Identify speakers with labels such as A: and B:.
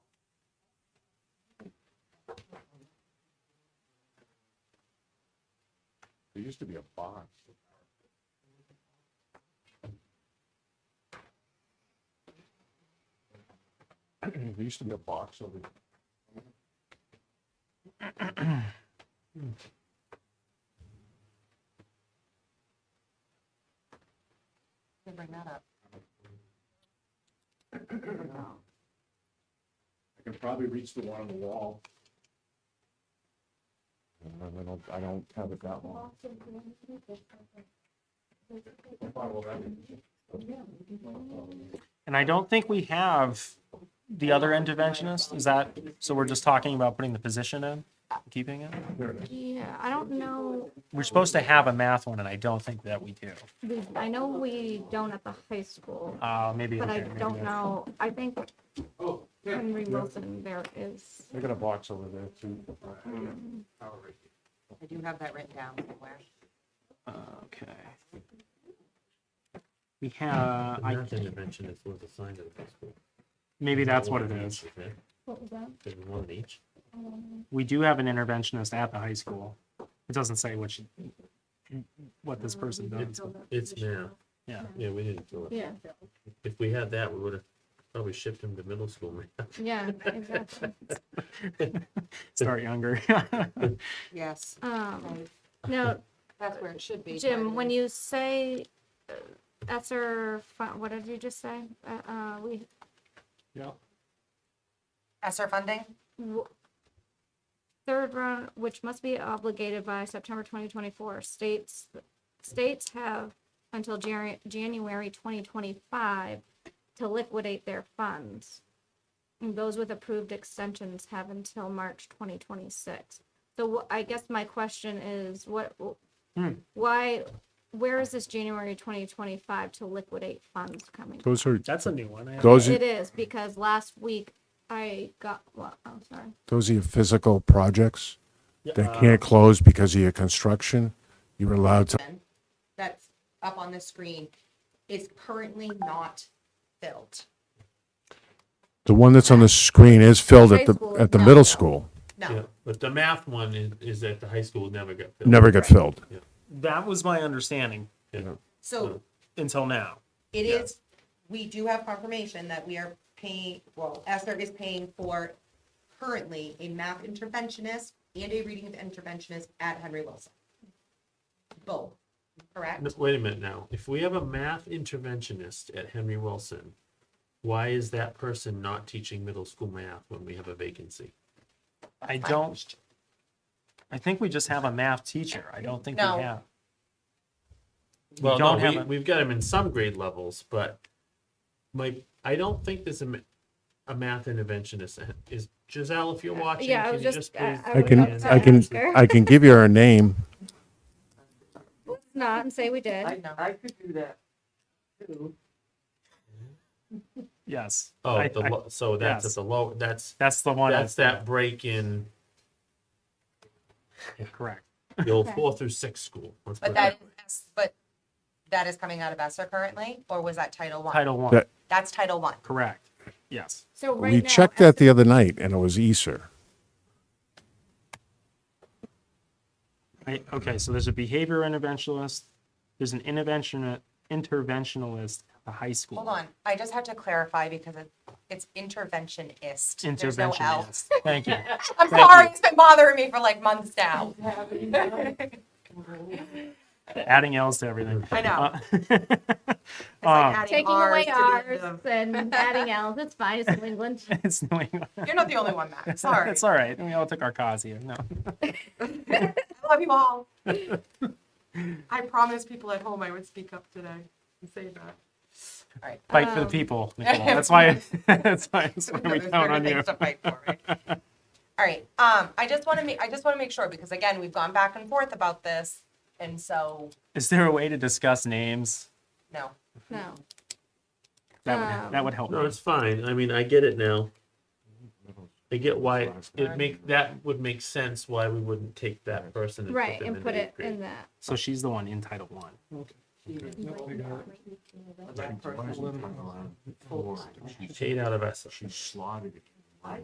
A: There used to be a box. There used to be a box over there.
B: Can bring that up.
C: I can probably reach the one on the wall.
A: I don't, I don't have it that long.
D: And I don't think we have the other interventionist. Is that, so we're just talking about putting the position in, keeping it?
B: Yeah, I don't know,
D: We're supposed to have a math one and I don't think that we do.
B: we, I know we don't at the high school,
D: Uh, maybe.
B: but I
D: okay, maybe not.
B: don't know, I think
C: Oh, yeah.
B: Henry Wilson there is.
A: They got a box over there too.
E: I do have that written down somewhere.
D: Okay. We have,
F: The
D: I,
F: math interventionist was assigned to the high school.
D: maybe that's
F: One
D: what it
F: of
D: is.
F: each, isn't it?
B: What was that?
F: There's one in each.
D: We do have an interventionist at the high school. It doesn't say what she, what this person does. but-
F: It's math.
D: Yeah.
F: Yeah, we didn't do it.
B: Yeah,
F: If we had that, we would have probably shipped him to middle school math.
B: yeah, exactly.
D: Start younger.
E: Yes,
B: Um, now,
E: that's where it should be.
B: Jim, when
E: you.
B: you say uh, Esser, fun- what did you just say? Uh, uh, we,
E: ESSER funding?
B: w- third round, which must be obligated by September twenty twenty-four, states, states have until January, January twenty twenty-five to liquidate their funds. And those with approved extensions have until March twenty twenty-six. So wh- I guess my question is, what,
D: Hmm.
B: why, where is this January twenty twenty-five to liquidate funds coming from?
A: Those are,
D: That's a new one. I-
A: those
B: It
A: are,
B: is, because last week I got, well, I'm sorry.
A: those are your physical projects that
D: Uh,
A: can't close because of your construction. You're allowed to,
E: That's up on the screen is currently not filled.
A: the one that's on the screen is filled at
B: High
A: the,
B: school is
A: at the
B: not
A: middle
B: filled.
A: school.
F: Yeah,
E: No,
F: But the math one is, is that the high school never got filled.
A: Never got filled.
D: That was my understanding
F: Yeah.
E: so
D: until now.
E: it is, we do have confirmation that we are paying, well, ESSER is paying for currently a math interventionist and a reading interventionist at Henry Wilson. Both, correct?
F: No, Wait a minute now. If we have a math interventionist at Henry Wilson, why is that person not teaching middle school math when we have a vacancy?
D: I don't, I think we just have a math teacher. I don't think we
E: No.
D: have. We
F: Well,
D: don't
F: no,
D: have
F: we,
D: a-
F: we've got them in some grade levels, but my, I don't think there's a, ma- a math interventionist. Is Giselle, if you're watching,
B: Yeah, I
F: can
B: was
F: you
B: just,
F: just
B: I
F: please?
B: I
A: I
B: was
A: can,
B: about to
A: I can,
B: ask her.
A: I can give you her name.
B: Not and say we did.
E: No.
D: Yes.
F: Oh,
D: I-
F: the,
D: I-
F: lo- so that's
D: yes. Oh,
F: at the low, that's,
D: That's the one.
F: that's that break in
D: Correct.
F: the old
B: Okay.
F: four through six school. Let's put
E: But
F: it
E: that,
F: way.
E: is- but that is coming out of ESSER currently, or was that Title One?
D: Title one.
A: That-
E: That's Title One.
D: Correct. Yes.
B: So right now.
A: We checked that the other night and it was Easter.
D: I, okay. So there's a behavior interventionist. There's an intervention interventionalist at the high school.
E: Hold on, I just had to clarify because it- it's interventionist. There's no L.
D: Interventionist. Thank you.
E: I'm
D: Thank
E: sorry,
D: you.
E: it's been bothering me for like months now.
D: Adding L's to everything.
E: I know.
D: Uh,
E: It's like
D: Um,
E: adding
B: Taking away
E: Rs to the end
B: ours
E: of-
B: and adding L's, it's fine, it's New England.
D: it's New England.
E: You're not the only one, Matt, sorry.
D: It's all right. We all took our cause here. No.
E: I love you all. I promised people at home I would speak up today and say that. All right.
D: Fight for the
B: Um,
D: people. Nicola. That's why. That's why, that's why
E: No,
D: we
E: there's
D: count
E: bigger
D: on you.
E: things to fight for, right? All right, um, I just want to make, I just want to make sure, because again, we've gone back and forth about this, and so,
D: Is there a way to discuss names?
E: no.
B: No.
D: That would that would help.
F: No,
D: me.
F: it's fine. I mean, I get it now. I get why it
E: Alright.
F: make, that would make sense why we wouldn't take that person and put
B: Right,
F: them
B: and
F: in
B: put
F: eighth
B: it
F: grade.
B: in that.
D: So she's the one in Title One.
A: She's
F: Eight out of us.
A: slotted it.